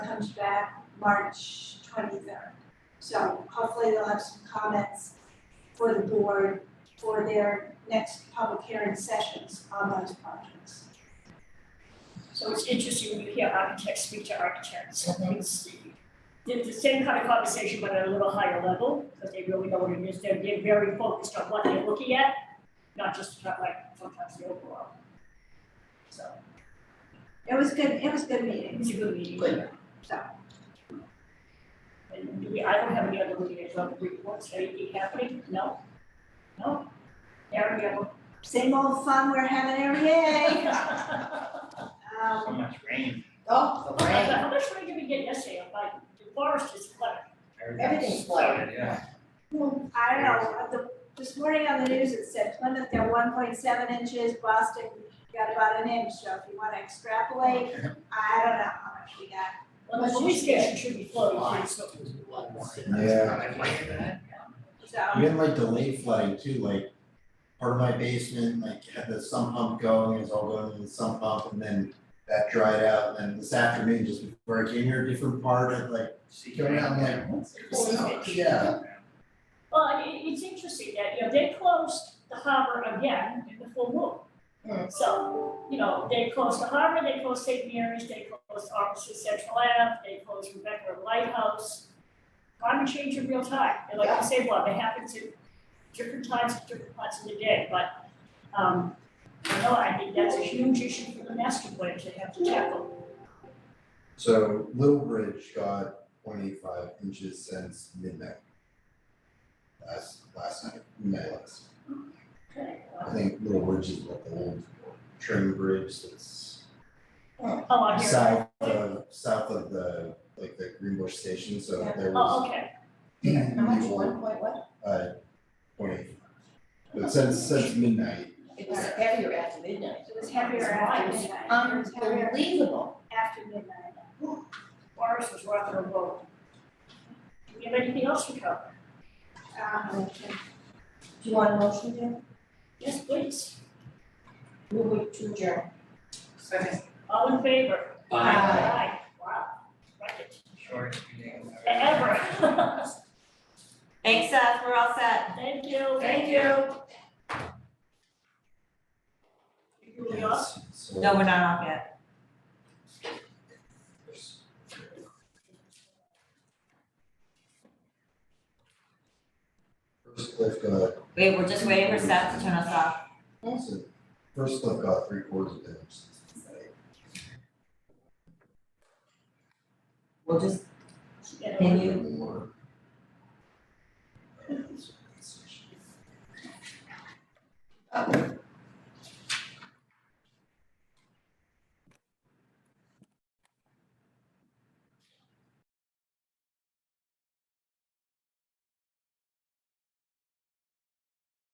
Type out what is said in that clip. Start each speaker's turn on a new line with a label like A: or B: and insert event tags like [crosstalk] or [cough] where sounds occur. A: comes back March twenty-third. So hopefully they'll have some comments for the board for their next public hearing sessions on those projects.
B: So it's interesting when you hear architects speak to architects, it's the, the same kind of conversation, but at a little higher level, because they really know what it is, they're, they're very focused on what they're looking at, not just kind of like sometimes the overall. So,
A: It was good, it was good meetings,
B: it's a good meeting.
C: Good.
A: so.
B: And do we, I don't have any other meeting, I don't reports, anything happening, no? No? There we go.
A: Same old fun we're having every day. Um,
D: So much rain.
C: Oh, the rain,
B: [laughs] How much rain did we get yesterday, like, the forest is flooded?
C: everything's flooded.
D: Yeah.
A: I don't know, uh, the, this morning on the news, it said Plymouth, they're one point seven inches, Boston got about an inch, so if you wanna extrapolate, I don't know how much we got.
B: Well, the police station should be flooded, too, so.
E: Yeah.
D: uh,
A: So,
E: Even like delayed flooding too, like part of my basement, like had the sump pump going, it was all going in the sump pump and then that dried out, and then this afternoon, just before I came here, a different part of like, going out, I'm like, what's this?
B: Holy shit.
E: Yeah,
B: Well, it, it's interesting that, you know, they closed the harbor again in the full moon.
C: Hmm.
B: So, you know, they closed the harbor, they closed St. Mary's, they closed Officer Central Ave, they closed Rebecca Lighthouse. Climate change in real time, and like you say, well, they happen to different times, at different parts of the day, but, um, you know, I think that's a huge issue for the master plan to have to tackle.
E: so Little Bridge got point eight five inches since midnight. Last, last night, midnight last,
B: Okay,
E: I
B: well,
E: think Little Bridge is like the old trim bridge that's
B: How long here?
E: south of, south of the, like the Greenbush station, so
A: Yeah.
E: there
B: Oh,
E: was.
B: okay.
C: How much, one point what?
E: Uh, point. But since, since midnight,
C: It was heavier after midnight.
A: it was heavier after midnight, it was heavier
C: Unbelievable.
A: after midnight.
B: Forest was rock and roll. Do we have anything else to cover?
A: Um,
C: Do you want a motion, Jim?
B: Yes, please.
C: Move it to adjourn.
D: Second.
B: All in favor? Aye. Wow, right,
D: Short meeting.
B: ever.
F: Thanks, Seth, we're all set.
B: Thank you.
C: Thank you.
B: You doing us?
E: so.
F: No, we're not off yet.
E: First cliff got,
F: Wait, we're just waiting for Seth to turn us off.
E: so first cliff got three quarters of an inch since midnight.
F: We'll just,
B: Yeah.
F: can you
E: More.
C: Oh,